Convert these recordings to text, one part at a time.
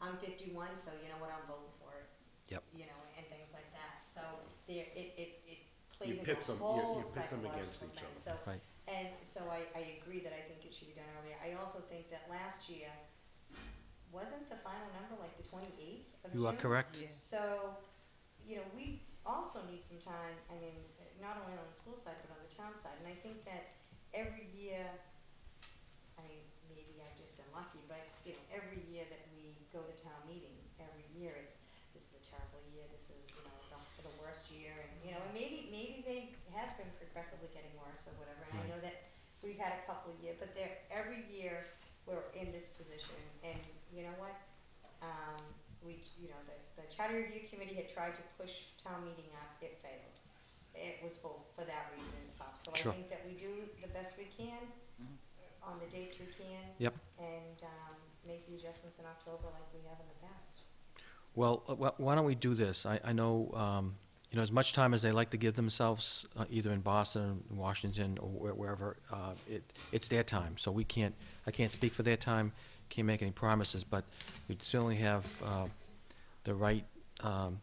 I'm fifty-one, so you know what, I'm voting for it. Yep. You know, and things like that, so there, it, it, it plays You into pit a them- you- whole you pit them against psychological each thing. other. So Right. and so I, I agree that I think it should be done earlier. I also think that last year, wasn't the final number like the twenty-eighth of June? You are correct. Yeah. So, you know, we also need some time, I mean, not only on the school side, but on the town side. And I think that every year, I mean, maybe I've just been lucky, but, you know, every year that we go to town meeting, every year it's, this is a terrible year, this is, you know, the, the worst year, and, you know, and maybe, maybe they have been progressively getting worse or whatever. And I Right. know that we've had a couple of years, but there, every year, we're in this position, and you know what? Um, we, you know, the, the charter review committee had tried to push town meeting up, it failed. It was both for that reason and stuff, so I Sure. think Mm-hmm. that we do the best we can Mhm. on the dates we can. Yep. And, um, make the adjustments in October like we have in the past. Well, uh, wh- why don't we do this? I, I know, um, you know, as much time as they like to give themselves, uh, either in Boston, in Washington, or where- wherever, uh, it, it's their time, so we can't, I can't speak for their time, can't make any promises, but we certainly have, uh, the right, um,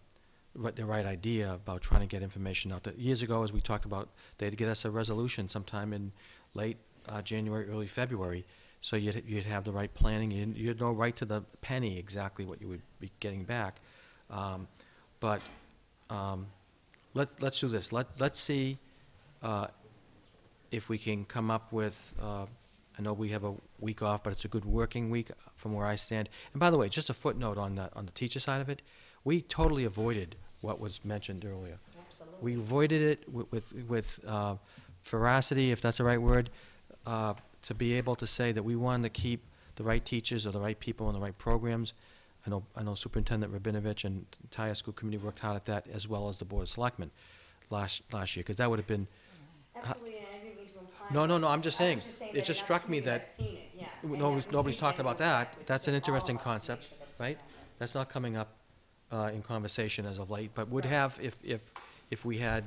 right- the right idea about trying to get information out there. Years ago, as we talked about, they'd get us a resolution sometime in late, uh, January, early February, so you'd, you'd have the right planning, you'd, you'd know right to the penny exactly what you would be getting back. Um, but, um, let, let's do this, let, let's see, uh, if we can come up with, uh, I know we have a week off, but it's a good working week from where I stand. And by the way, just a footnote on the, on the teacher side of it, we totally avoided what was mentioned earlier. We Absolutely. avoided it wi- with, with uh, veracity, if that's the right word, uh, to be able to say that we wanted to keep the right teachers or the right people in the right programs. I know, I know Superintendent Rabinovich and the entire school committee worked hard at that, as well as the Board of Selectmen last, last year, because that would have been, Absolutely, and I didn't mean to imply. No, no, that. no, I'm just saying, that it just enough struck me communities that have seen it, yeah, and nobody's- that we nobody's keep talking getting about back that. with That's an all of interesting us to make concept, sure that it's right? done right. that's not coming up uh, in conversation as of late, but would Right. have if, if, if we had,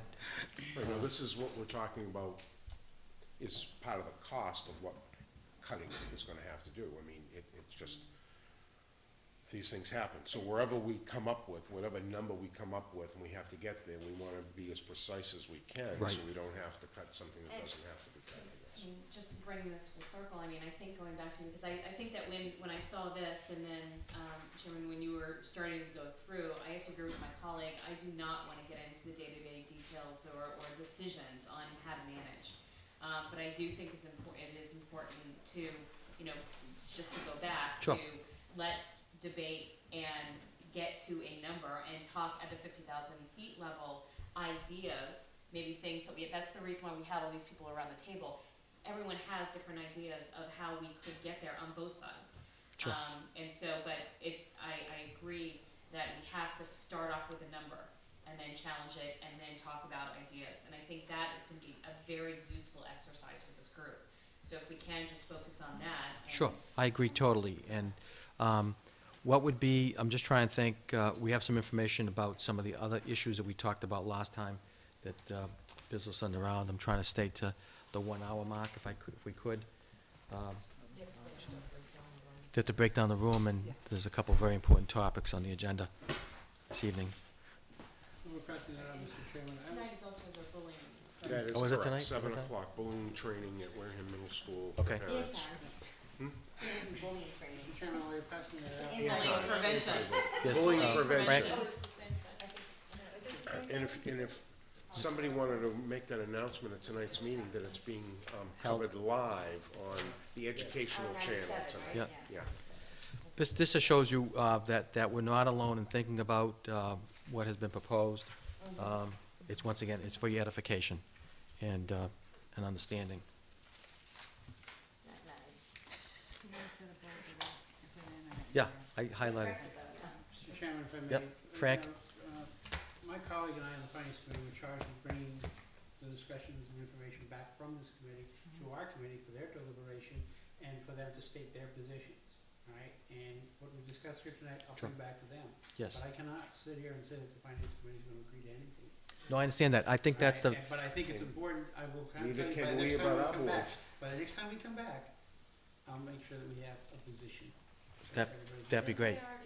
Right, now, this is what we're talking about, is part of the cost of what cutting is gonna have to do. I mean, it, it's just, these things happen. So wherever we come up with, whatever number we come up with, and we have to get there, we wanna be as precise as we can, Right. so we don't have to cut something that And- doesn't have to be cut, I guess. mean, just bringing this full circle, I mean, I think going back to, because I, I think that when, when I saw this and then, um, Chairman, when you were starting to go through, I have to agree with my colleague, I do not want to get into the day-to-day details or, or decisions on how to manage. Um, but I do think it's important, it is important to, you know, just to go back Sure. to, let's debate and get to a number and talk at the fifty thousand feet level ideas, maybe things that we, that's the reason why we have all these people around the table everyone has different ideas of how we could get there on both sides. Sure. Um, and so, but it, I, I agree that we have to start off with a number and then challenge it and then talk about ideas. And I think that is going to be a very useful exercise for this group. So if we can just focus on that and. Sure, I agree totally, and um, what would be, I'm just trying to think, uh, we have some information about some of the other issues that we talked about last time that uh, business sent around, I'm trying to stay to the one-hour mark if I could, if we could. um, Just to break down the room, and Yeah. there's a couple of very important topics on the agenda this evening. We're passing that on, Mr. Chairman. I Tonight is also the bullying. That is Oh, is it tonight? correct, Is it seven tonight? o'clock, bullying training at Wareham Middle School for Okay. Ian parents. Town. Hmm? Ian is bullying training. Mr. Chairman, we're passing that out. Ian Bullying Town. prevention. Yes, Bullying uh, prevention. Frank- Uh, And if, and if somebody wanted to make that announcement at tonight's meeting, that it's being um, Held. covered live on the educational On channel 97, tonight. uh, right? Yeah. Yeah. This, this just shows you uh, that, that we're not alone in thinking about uh, what has been proposed. Mhm. Um, It's, once again, it's for your edification and, uh, and understanding. Not nice. Oh. Yeah, I highlighted, Impressive though, yeah. Mr. Chairman, if I may. Yep, uh, Frank. uh, My colleague and I on the Finance Committee were charged with bringing the discussions and information back from this committee to our committee for their deliberation and for them to state their positions, all right? And what we discussed here tonight, I'll Sure. bring back to them. yes. But I cannot sit here and say that the Finance Committee is going to agree to anything. No, I understand that. I think all that's right? the, And- But I think it's important, I will kind of Neither can tell you by the we next time about we our come back. boards. By the next time we come back, I'll make sure that we have a position. so That- everybody's that'd be clear. great.